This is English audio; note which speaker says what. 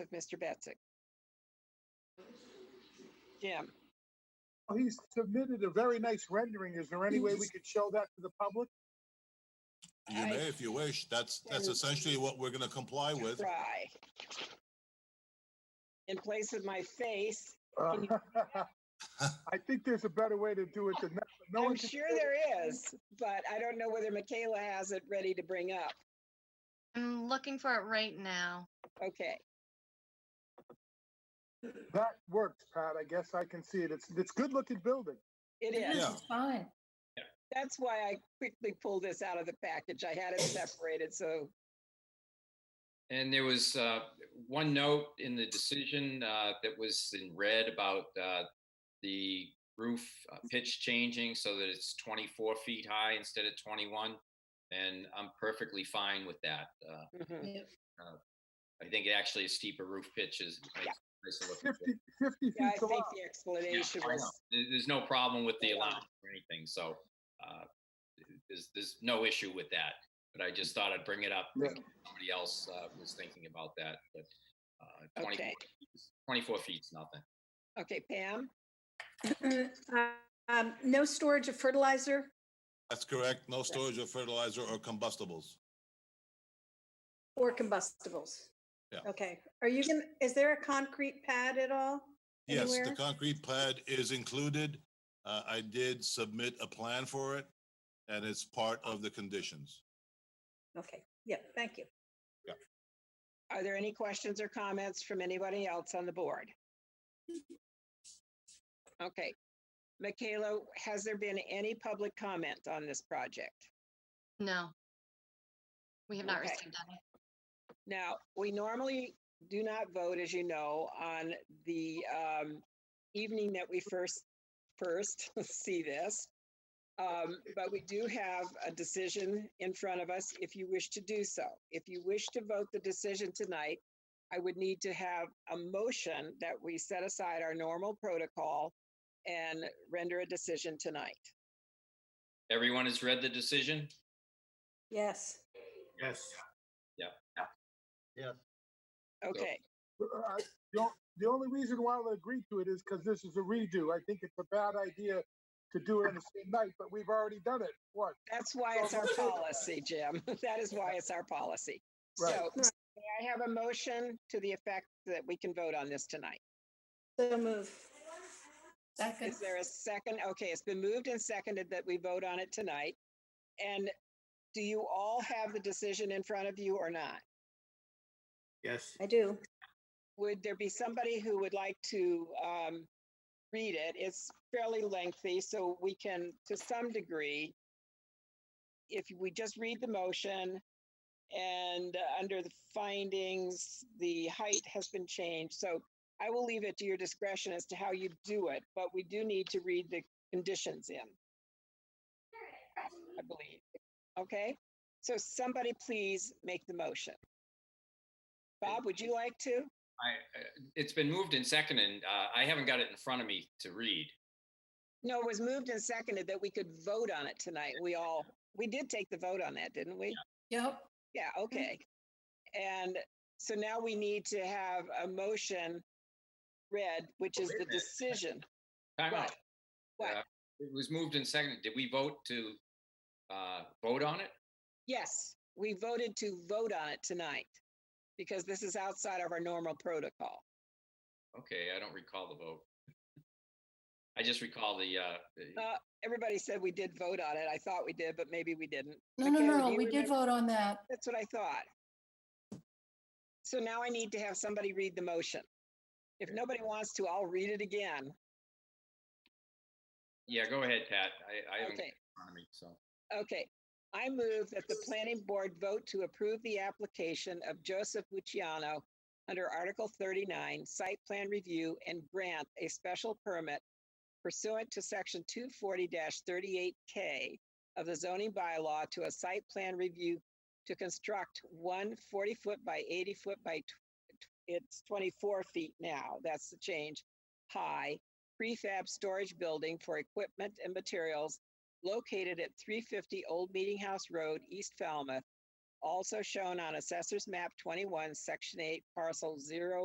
Speaker 1: of Mr. Betsick? Jim,
Speaker 2: Well, He's Oh, submitted a very nice rendering. Is there any way we could show that to the public?
Speaker 3: You may if you wish. That's, that's essentially what we're gonna comply with.
Speaker 1: try. In place of my face, Can
Speaker 2: I think there's a better way to do it than that. but No
Speaker 1: I'm
Speaker 2: one can-
Speaker 1: sure there is, but I don't know whether Michaela has it ready to bring up.
Speaker 4: I'm looking for it right now.
Speaker 1: Okay,
Speaker 2: That works, Pat. I guess I can see it. It's, it's good looking building.
Speaker 1: it
Speaker 5: It
Speaker 1: is.
Speaker 5: is,
Speaker 3: Yeah.
Speaker 5: it's fine.
Speaker 1: That's why I quickly pulled this out of the package. I had it separated, so
Speaker 6: And there was uh, one note in the decision uh, that was in red about uh, the roof uh, pitch changing so that it's 24 feet high instead of 21. And I'm perfectly fine with that. Uh,
Speaker 1: mhm.
Speaker 5: Yep.
Speaker 6: I think actually a steeper roof pitch is nice
Speaker 1: Yeah.
Speaker 6: nice to look at.
Speaker 2: 50, 50
Speaker 1: yeah, I
Speaker 2: feet's a
Speaker 1: think
Speaker 2: lot.
Speaker 1: the
Speaker 6: Yeah,
Speaker 1: explanation
Speaker 6: I know.
Speaker 1: was,
Speaker 6: There- There's no problem with the
Speaker 1: Yeah.
Speaker 6: allowance or anything, so uh, there's, there's no issue with that. But I just thought I'd bring it up.
Speaker 2: Yeah.
Speaker 6: because Somebody else uh, was thinking about that, but uh, 24
Speaker 1: Okay.
Speaker 6: feet- 24 feet's nothing.
Speaker 1: okay, Pam?
Speaker 7: Uh, um, No storage of fertilizer?
Speaker 3: That's correct. No storage of fertilizer or combustibles.
Speaker 7: Or combustibles?
Speaker 3: Yeah.
Speaker 7: Okay, are you, gonna? is there a concrete pad at all?
Speaker 3: Yes, the
Speaker 7: Anywhere?
Speaker 3: concrete pad is included. Uh, I did submit a plan for it and it's part of the conditions.
Speaker 7: Okay, yeah, thank you.
Speaker 1: Are there any questions or comments from anybody else on the board? Okay. Michaela, has there been any public comment on this project?
Speaker 4: No. We have not
Speaker 1: Okay.
Speaker 4: received any.
Speaker 1: Now, we normally do not vote, as you know, on the um, evening that we first, first see this. Um, But we do have a decision in front of us if you wish to do so. If you wish to vote the decision tonight, I would need to have a motion that we set aside our normal protocol and render a decision tonight.
Speaker 6: Everyone has read the decision?
Speaker 7: Yes,
Speaker 8: Yes.
Speaker 1: Okay,
Speaker 2: Uh, I- The o- the only reason why I'll agree to it is because this is a redo. I think it's a bad idea to do it on the same night, but we've already done it. What?
Speaker 1: that's why it's our policy, Jim. That is why it's our policy.
Speaker 2: Right.
Speaker 1: So may I have a motion to the effect that we can vote on this tonight?
Speaker 7: so move.
Speaker 5: Second,
Speaker 1: Is there a second? Okay, it's been moved and seconded that we vote on it tonight. And do you all have the decision in front of you or not?
Speaker 8: Yes.
Speaker 7: I do.
Speaker 1: Would there be somebody who would like to um, read it? It's fairly lengthy, so we can, to some degree, if we just read the motion and uh, under the findings, the height has been changed. So I will leave it to your discretion as to how you do it, but we do need to read the conditions in. I believe. Okay, so somebody please make the motion. Bob, would you like to?
Speaker 6: I, I- it's been moved and seconded. and, uh, I haven't got it in front of me to read.
Speaker 1: No, it was moved and seconded that we could vote on it tonight. We all, we did take the vote on that, didn't we?
Speaker 5: yep.
Speaker 1: Yeah, okay. And so now we need to have a motion read, which is the decision.
Speaker 6: Time
Speaker 1: Right.
Speaker 6: out.
Speaker 1: What?
Speaker 6: Uh, It was moved and seconded. Did we vote to uh, vote on it?
Speaker 1: Yes, we voted to vote on it tonight because this is outside of our normal protocol.
Speaker 6: Okay, I don't recall the vote. I just recall the, uh, the-
Speaker 1: Uh, Everybody said we did vote on it. I thought we did, but maybe we didn't.
Speaker 5: No, no,
Speaker 1: Michaela, do
Speaker 5: no,
Speaker 1: you
Speaker 5: we did
Speaker 1: remember?
Speaker 5: vote on that.
Speaker 1: That's what I thought. So now I need to have somebody read the motion. If nobody wants to, I'll read it again.
Speaker 6: yeah, go ahead, Pat. I, I haven't got it
Speaker 1: Okay,
Speaker 6: in front of me, so.
Speaker 1: okay. I move that the planning board vote to approve the application of Joseph Luciano under Article 39, Site Plan Review, and grant a special permit pursuant to Section 240-38K of the zoning bylaw to a site plan review to construct one 40-foot by 80-foot by, tw- tw- it's 24 feet now, that's the change, high prefab storage building for equipment and materials located at 350 Old Meeting House Road, East Falmouth, also shown on Assessor's Map 21, Section 8, Parcel 0.